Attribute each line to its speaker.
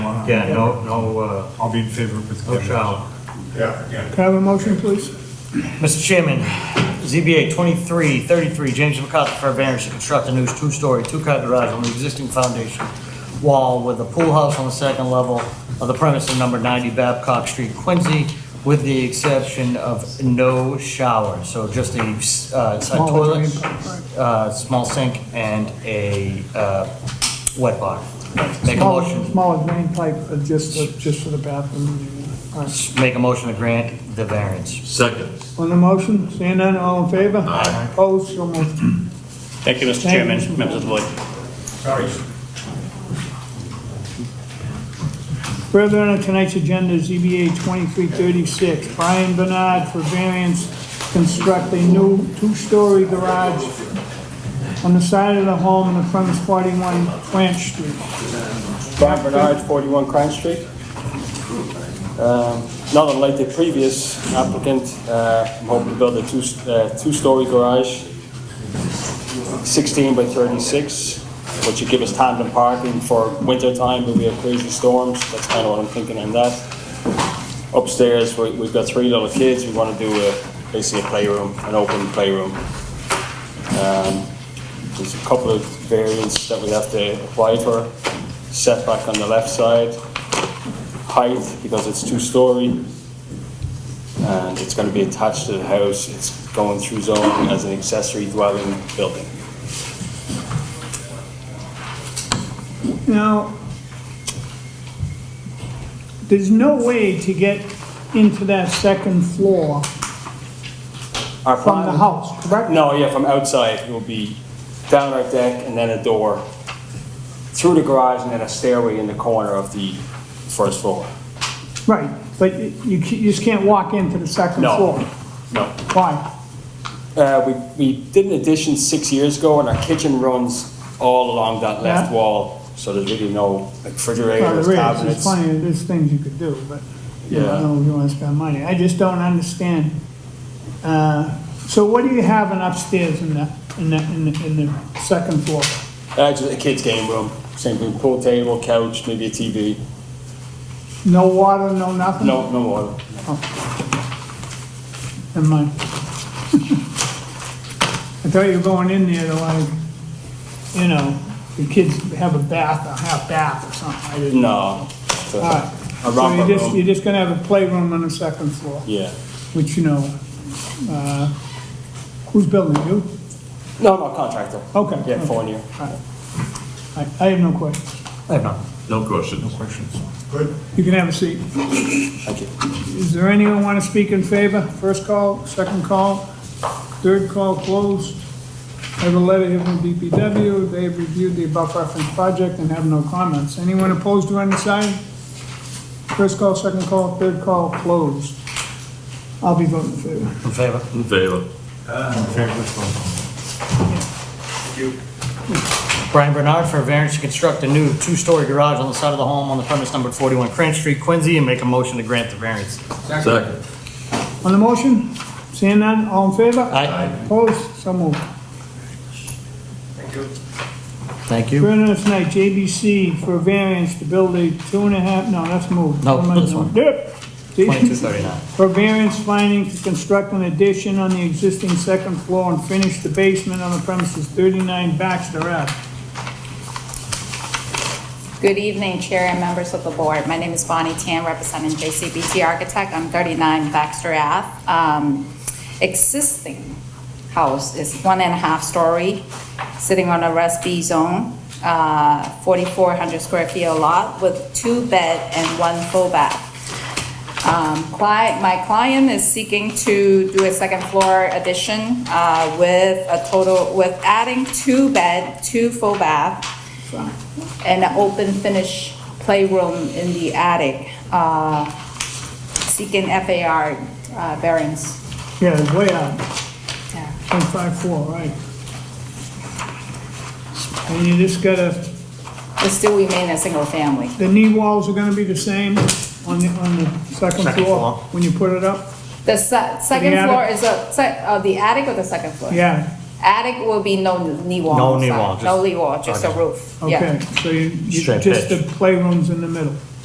Speaker 1: Yeah, no, no, uh,
Speaker 2: I'll be in favor with.
Speaker 1: no shower.
Speaker 3: Yeah, yeah.
Speaker 4: Can I have a motion, please?
Speaker 5: Mr. Chairman, ZBA 2333, James McCarthy for a variance to construct a new two-story, two-car garage on the existing foundation wall with a pool house on the second level of the premises number 90 Babcock Street, Quincy, with the exception of no shower, so just a uh, side
Speaker 4: Small
Speaker 5: toilet,
Speaker 4: drain pipe,
Speaker 5: uh, small sink, and a uh, wet bar. Make a
Speaker 4: Smaller-
Speaker 5: motion,
Speaker 4: Smaller drain pipe, uh, just, uh, just for the bathroom. All right.
Speaker 5: make a motion to grant the variance.
Speaker 1: Second.
Speaker 4: On the motion, seeing none, all in favor? Aye. Opposed, so moved.
Speaker 6: Thank you, Mr.
Speaker 4: Thank you,
Speaker 6: Chairman,
Speaker 4: Mr. Chairman.
Speaker 6: members of the board.
Speaker 3: Sorry.
Speaker 4: Further on tonight's agenda, ZBA 2336, Brian Bernard for variance, construct a new two-story garage on the side of the home in the premise 41 French Street.
Speaker 7: Brian Bernard, 41 Crime Street. Um, Not unlike the previous applicant, uh, I'm hoping to build a two- uh, two-story garage, 16 by 36, which would give us tandem parking for winter time when we have crazy storms. That's kind of what I'm thinking on that. Upstairs, we- we've got three little kids. We want to do a- basically a playroom, an open playroom. Um, There's a couple of variants that we have to apply for. Setback on the left side, height, because it's two-story, and it's going to be attached to the house. It's going through zone as an accessory dwelling building.
Speaker 4: Now, there's no way to get into that second floor
Speaker 7: Our
Speaker 4: from the
Speaker 7: plan-
Speaker 4: house, correct?
Speaker 7: No, yeah, from outside, it will be down our deck and then a door through the garage and then a stairway in the corner of the first floor.
Speaker 4: Right, but you you ca- you just can't walk into the second
Speaker 7: No.
Speaker 4: floor.
Speaker 7: No.
Speaker 4: Why?
Speaker 7: Uh, we, we did an addition six years ago, and our kitchen runs all along that left
Speaker 4: Yeah.
Speaker 7: wall, so there's really no like,
Speaker 4: Well,
Speaker 7: refrigerators,
Speaker 4: there is, there's
Speaker 7: cabinets.
Speaker 4: plenty, of- there's things you could do, but you know, I don't know if you wanna spend money, I just don't understand. Uh, So what do you have in upstairs in the, in the, in the, in the second floor?
Speaker 7: Uh, just a kids' game room, same thing, pool table, couch, maybe a TV.
Speaker 4: No water, no nothing?
Speaker 7: No, no water.
Speaker 4: Never mind. I thought you were going in there to like, you know, the kids have a bath, a half bath or something, I didn't.
Speaker 7: No. It's
Speaker 4: All
Speaker 7: A,
Speaker 4: right,
Speaker 7: a
Speaker 4: so
Speaker 7: romper
Speaker 4: you're just,
Speaker 7: room.
Speaker 4: you're just gonna have a playroom on the second floor,
Speaker 7: Yeah.
Speaker 4: which you know, uh, who's building it? you?
Speaker 7: No, no contractor.
Speaker 4: Okay.
Speaker 7: Yeah,
Speaker 4: okay.
Speaker 7: four year.
Speaker 4: I I have no questions.
Speaker 5: I have none.
Speaker 1: No questions.
Speaker 3: Good.
Speaker 4: You can have a seat.
Speaker 7: Thank you.
Speaker 4: Is there anyone want to speak in favor? First call, second call, third call closed. I have a letter here from DPW. They have reviewed the above referenced project and have no comments. Anyone opposed to any side? First call, second call, third call closed. I'll be voting in favor.
Speaker 5: In favor?
Speaker 1: In favor.
Speaker 5: Brian Bernard for a variance to construct a new two-story garage on the side of the home on the premise numbered 41 Cran Street, Quincy, and make a motion to grant the variance.
Speaker 1: Second.
Speaker 4: On the motion, seeing none, all in favor?
Speaker 5: Aye.
Speaker 4: Opposed? So moved.
Speaker 5: Thank you.
Speaker 4: Brennan tonight, JBC for variance to build a two and a half, no, that's moved.
Speaker 5: No,
Speaker 4: Never mind.
Speaker 5: this one.
Speaker 4: Yep.
Speaker 5: 2239.
Speaker 4: For variance finding to construct an addition on the existing second floor and finish the basement on the premises 39 Baxter Ave.
Speaker 8: Good evening, Chair and members of the board. My name is Bonnie Tan, representing JCBT Architect. I'm 39 Baxter Ave. Um, Existing house is one and a half story, sitting on a Res B zone, uh, 4,400 square feet a lot with two bed and one full bath. Um, cli- My client is seeking to do a second floor addition uh, with a total, with adding two bed, two full bath, and an open finish playroom in the attic, uh, seeking FAR uh, variance.
Speaker 4: Yeah, it's way out,
Speaker 8: Yeah.
Speaker 4: 154, right. And you just gotta,
Speaker 8: It still remain a single family.
Speaker 4: the knee walls are gonna be the same on the, on the second
Speaker 5: Second
Speaker 4: floor
Speaker 5: floor.
Speaker 4: when you put it up?
Speaker 8: The se- second
Speaker 4: attic?
Speaker 8: floor is a, se- uh, the attic or the second floor?
Speaker 4: Yeah,
Speaker 8: Attic will be no knee wall.
Speaker 5: No knee
Speaker 8: inside.
Speaker 5: wall,
Speaker 8: No
Speaker 5: just-
Speaker 8: knee wall, just a roof. Yeah.
Speaker 4: okay, so you, you-
Speaker 5: Straight
Speaker 4: just the
Speaker 5: pitch.
Speaker 4: playrooms in the middle.